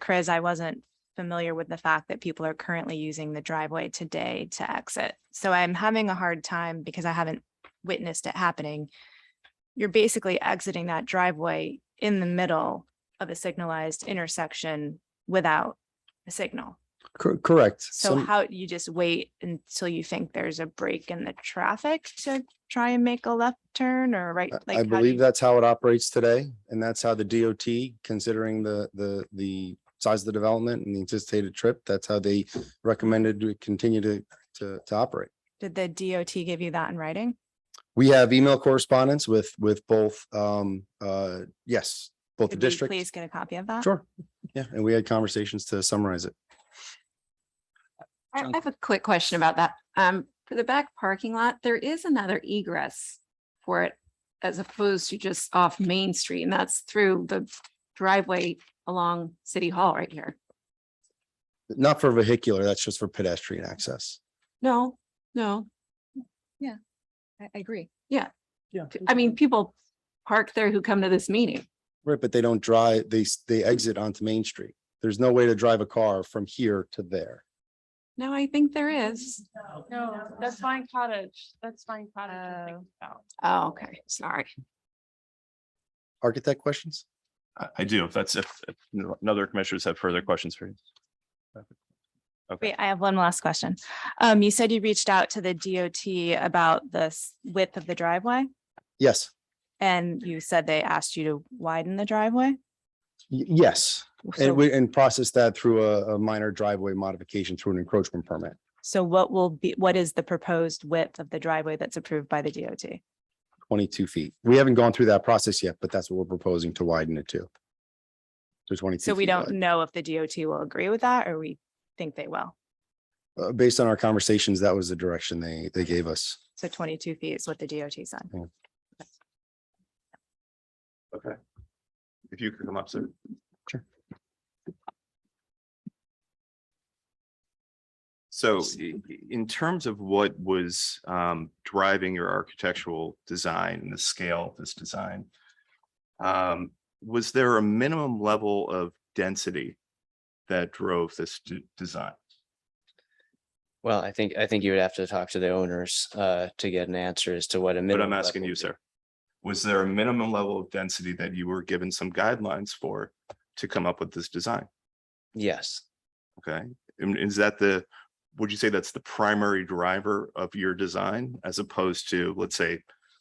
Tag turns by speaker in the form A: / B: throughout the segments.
A: Chris, I wasn't familiar with the fact that people are currently using the driveway today to exit. So I'm having a hard time because I haven't witnessed it happening. You're basically exiting that driveway in the middle of a signalized intersection without a signal.
B: Cor- Correct.
A: So
B: Some-
A: how, you just wait until you think there's a break in the traffic to try and make a left turn or right?
B: I-
A: like
B: I
A: how do
B: believe
A: you-
B: that's how it operates today, and that's how the DOT, considering the, the, the size of the development and the anticipated trip, that's how they recommended to continue to, to, to operate.
A: Did the DOT give you that in writing?
B: We have email correspondence with, with both, um, uh, yes, both the
A: Could we
B: district.
A: Please get a copy of that.
B: Sure. Yeah, and we had conversations to summarize it.
C: I I
D: Sounds-
C: have a quick question about that. Um, for the back parking lot, there is another egress for it as opposed to just off Main Street, and that's through the driveway along City Hall right here.
B: Not for vehicular, that's just for pedestrian access.
C: No, no,
D: I, I agree.
E: Yeah.
C: p- I mean, people park there who come to this meeting.
B: Right, but they don't drive, they, s- they exit onto Main Street. There's no way to drive a car from here to there.
C: No, I think there is.
F: No, that's Vine Cottage. That's Vine Cottage. I'm thinking about.
C: Oh, okay, sorry.
B: Architect questions?
G: I, I do. If that's, if, if n- another commissioners have further questions for you.
A: Wait, I have one last question. Um, you said you reached out to the DOT about the s- width of the driveway
B: Yes.
A: and you said they asked you to widen the driveway?
B: Y- Yes,
A: So-
B: and we, and process that through a, a minor driveway modification through an encroachment permit.
A: So what will be, what is the proposed width of the driveway that's approved by the DOT?
B: Twenty-two feet. We haven't gone through that process yet, but that's what we're proposing to widen it to. To twenty-two.
A: So we
B: feet
A: don't
B: wide.
A: know if the DOT will agree with that or we think they will.
B: Uh, based on our conversations, that was the direction they, they gave us.
A: So twenty-two feet is what the DOT said.
G: Okay. If you could come up, sir.
B: Sure.
G: So i- i- in terms of what was um, driving your architectural design and the scale of this design, um, was there a minimum level of density that drove this d- design?
H: Well, I think, I think you would have to talk to the owners uh to get an answer as to what a
G: But
H: minimum.
G: I'm asking
H: level
G: you,
H: would be.
G: sir. Was there a minimum level of density that you were given some guidelines for to come up with this design?
H: Yes,
G: Okay, and is that the, would you say that's the primary driver of your design as opposed to, let's say,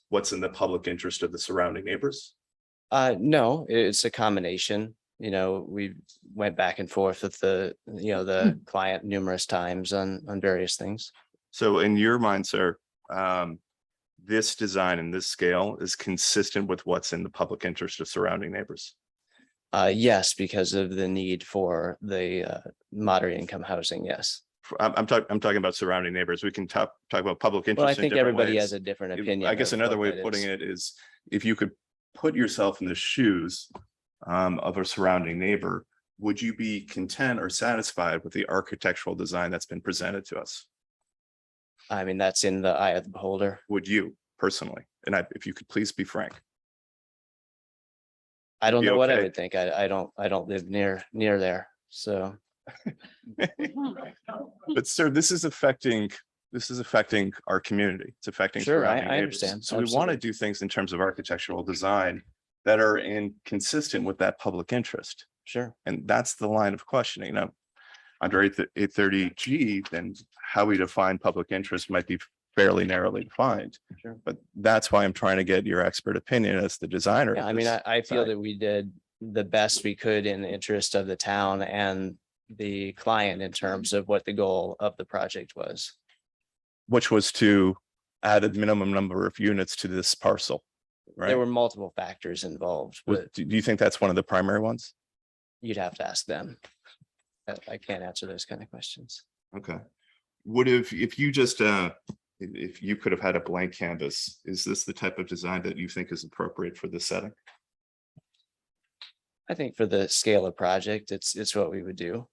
G: what's in the public interest of the surrounding neighbors?
H: uh, no, i- it's a combination, you know, we went back and forth with the, you know, the client numerous times on on various things.
G: So in your mind, sir, um, this design and this scale is consistent with what's in the public interest of surrounding neighbors.
H: Uh, yes, because of the need for the uh moderate income housing, yes.
G: F- I'm, I'm talking, I'm talking about surrounding neighbors. We can talk, talk about public
H: Well, I
G: interest in
H: think
G: different
H: everybody
G: ways.
H: has a different
G: If-
H: opinion.
G: I guess
H: of
G: another
H: what
G: way of
H: that
G: putting
H: is.
G: it is, if you could put yourself in the shoes um, of a surrounding neighbor, would you be content or satisfied with the architectural design that's been presented to us?
H: I mean, that's in the eye of the beholder.
G: Would you personally? And I, if you could please be frank.
H: I don't
G: You
H: know what I
G: okay?
H: would think. I I don't, I don't live near near there, so.
G: But sir, this is affecting, this is affecting our community. It's affecting.
H: Sure, I-
G: surrounding
H: I
G: neighbors.
H: understand.
G: So we want
H: Absolutely.
G: to do things in terms of architectural design that are in consistent with that public interest.
H: Sure.
G: And that's the line of questioning. Now, under eight thirty G, then how we define public interest might be fairly narrowly defined.
H: Sure.
G: But that's why I'm trying to get your expert opinion as the designer.
H: Yeah,
G: of
H: I mean,
G: this.
H: I, I feel
G: Sorry.
H: that we did the best we could in the interest of the town and the client in terms of what the goal of the project was.
G: Which was to add a minimum number of units to this parcel, right?
H: There were multiple factors involved,
G: Was-
H: but
G: Do do you think that's one of the primary ones?
H: you'd have to ask them. I- I can't answer those kind of questions.
G: Okay. Would have, if you just, uh, i- if you could have had a blank canvas, is this the type of design that you think is appropriate for this setting?
H: I think for the scale of project, it's, it's what we would do.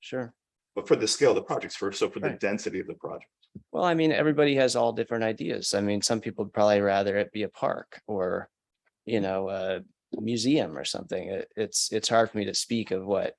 H: Sure.
G: But for the scale of the projects first, so for the
H: Right.
G: density of the project.
H: Well, I mean, everybody has all different ideas. I mean, some people would probably rather it be a park or, you know, a museum or something. It- It's, it's hard for me to speak of what